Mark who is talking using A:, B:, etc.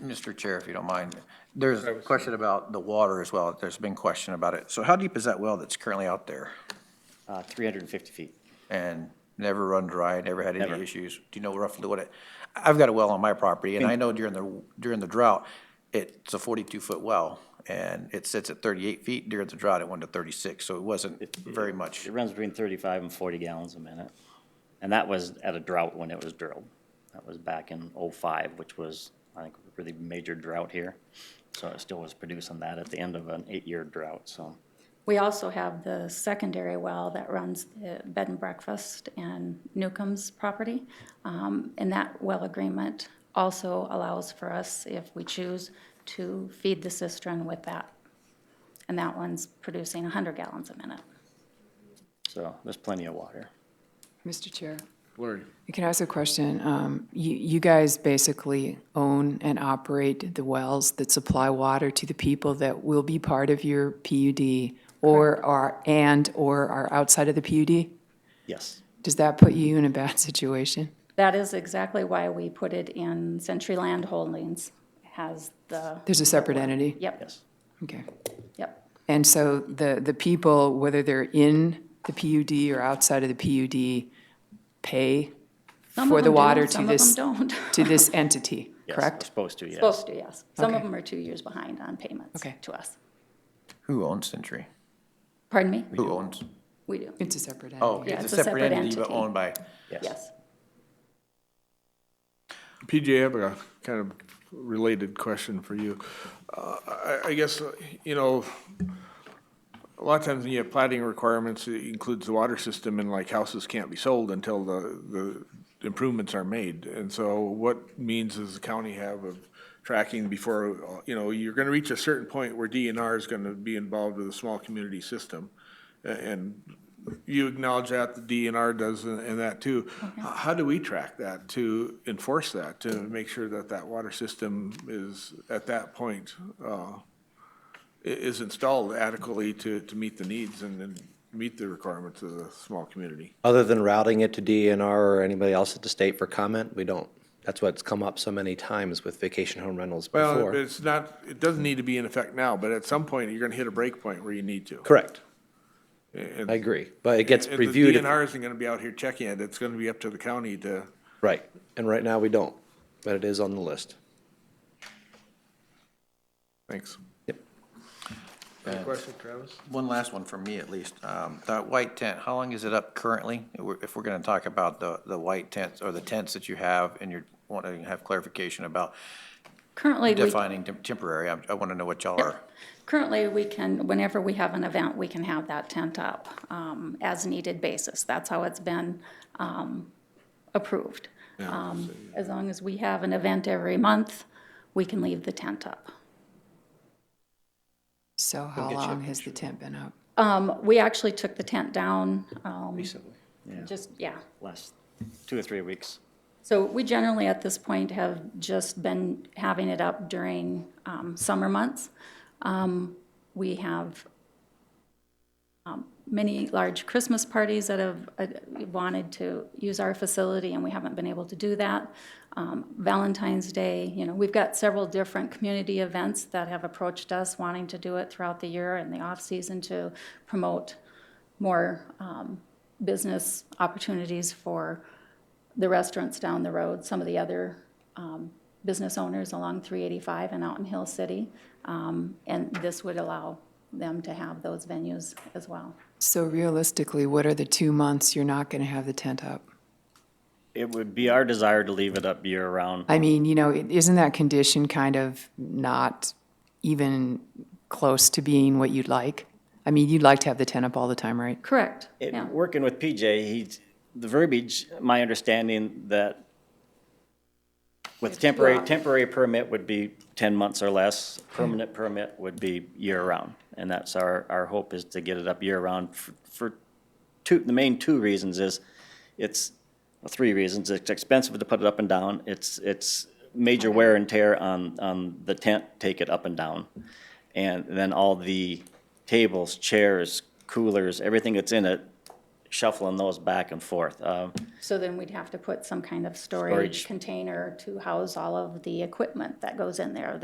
A: Mr. Chair, if you don't mind, there's a question about the water as well. There's been question about it. So how deep is that well that's currently out there
B: Uh, 350 feet.
A: and never run dry, never had
B: Never.
A: any issues? Do you know roughly what it, I've got a well on my property and I know during the, during the drought, it's a forty-two foot well and it sits at thirty-eight feet. During the drought, it went to thirty-six, so it wasn't very much.
B: It runs between 35 and 40 gallons a minute. And that was at a drought when it was drilled. That was back in '05, which was, I think, a really major drought here. So it still was producing that at the end of an eight-year drought, so.
C: We also have the secondary well that runs the bed and breakfast and Newcomb's property. Um, And that well agreement also allows for us, if we choose, to feed the cistern with that. And that one's producing 100 gallons a minute.
B: So there's plenty of water.
D: Mr. Chair,
E: Larry,
D: can I ask a question? Um, You you guys basically own and operate the wells that supply water to the people that will be part of your PUD or are, and/or are outside of the PUD?
B: Yes.
D: Does that put you in a bad situation?
C: That is exactly why we put it in Century Land Holdings, has the,
D: There's a separate entity?
C: yep,
B: Yes.
D: Okay.
C: yep.
D: And so the, the people, whether they're in the PUD or outside of the PUD, pay
C: Some of
D: for the
C: them do,
D: water to this,
C: Some of them
D: to
C: don't.
D: this entity,
B: Yes, we're
D: correct?
B: Supposed to, yes.
C: Supposed to, yes. Some of
D: Okay.
C: them are two years behind on payments
D: Okay.
C: to us.
A: Who owns Century?
C: Pardon me?
A: Who owns?
C: We do,
D: It's a separate entity.
A: Oh, okay,
C: Yeah,
A: it's a separate entity, but
C: entity.
A: owned by,
C: yes.
E: PJ, I have a kind of related question for you. Uh, I, I guess, uh, you know, a lot of times when you have plating requirements, it includes the water system and like houses can't be sold until the, the improvements are made. And so what means does the county have of tracking before, uh, you know, you're gonna reach a certain point where DNR is gonna be involved with a small community system. A- And you acknowledge that the DNR does and and that too. H- How do we track that to enforce that, to make sure that that water system is at that point, uh, i- is installed adequately to, to meet the needs and, and meet the requirements of the small community.
F: Other than routing it to DNR or anybody else at the state for comment, we don't. That's what's come up so many times with vacation home rentals
E: Well,
F: before.
E: it's not, it doesn't need to be in effect now, but at some point, you're gonna hit a break point where you need to.
F: Correct,
E: And-
F: I agree, but it gets
E: and the
F: reviewed. if-
E: DNR isn't gonna be out here checking it, it's gonna be up to the county to,
F: Right, and right now we don't, but it is on the list.
E: thanks.
F: Yep.
E: Any question, Travis?
A: Uh, one last one for me at least. Um, That white tent, how long is it up currently? If we're- If we're going to talk about the, the white tents or the tents that you have and you're wanting to have clarification about
C: Currently, we,
A: defining tem- temporary, I, I want to know what y'all are.
C: currently, we can, whenever we have an event, we can have that tent up um, as needed basis. That's how it's been um, approved. Um, As long as we have an event every month, we can leave the tent up.
D: So how long has the tent been up?
C: Um, We actually took the tent down. Recently. Just, yeah.
B: Last two or three weeks.
C: So we generally, at this point, have just been having it up during um, summer months. Um, We have um, many large Christmas parties that have uh, wanted to use our facility, and we haven't been able to do that. Um, Valentine's Day, you know, we've got several different community events that have approached us wanting to do it throughout the year and the off-season to promote more um, business opportunities for the restaurants down the road, some of the other um, business owners along 385 and out in Hill City. Um, And this would allow them to have those venues as well.
D: So realistically, what are the two months you're not going to have the tent up?
B: It would be our desire to leave it up year-round.
D: I mean, you know, it- isn't that condition kind of not even close to being what you'd like? I mean, you'd like to have the tent up all the time, right?
C: Correct,
B: It-
C: yeah.
B: Working with PJ, he's, the verbiage, my understanding that with temporary, temporary permit would be ten months or less, permanent permit would be year-round. And that's our, our hope is to get it up year-round for, for two, the main two reasons is, it's, well, three reasons, it's expensive to put it up and down, it's, it's major wear and tear on, on the tent, take it up and down. And then all the tables, chairs, coolers, everything that's in it shuffling those back and forth. Um,
C: So then we'd have to put some kind of
B: Storage.
C: storage container to house all of the equipment that goes in there,